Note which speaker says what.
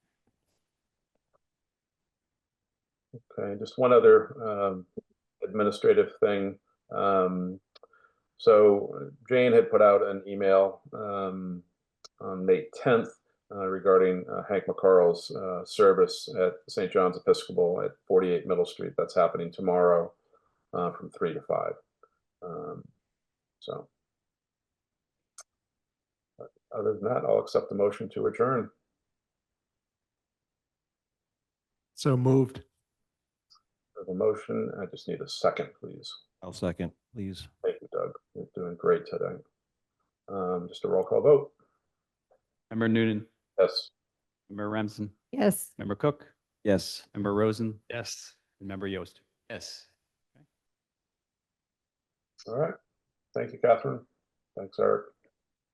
Speaker 1: Okay, just one other um, administrative thing. Um, So Jane had put out an email um, on May 10th uh, regarding uh, Hank McCarl's uh, service at St. John's Episcopal at 48 Middle Street. That's happening tomorrow uh, from 3 to 5. Um, So. But Other than that, I'll accept the motion to adjourn.
Speaker 2: So moved.
Speaker 1: I have A motion, I just need a second, please.
Speaker 3: I'll second, please.
Speaker 1: Thank you, Doug. You're doing great today. Um, just a roll call vote.
Speaker 4: Member Noonan,
Speaker 1: Yes.
Speaker 4: member Remsen,
Speaker 5: Yes.
Speaker 4: member Cook,
Speaker 3: Yes.
Speaker 4: member Rosen,
Speaker 2: Yes.
Speaker 4: and member Yost. Yes.
Speaker 1: All right. Thank you, Catherine. Thanks, Eric.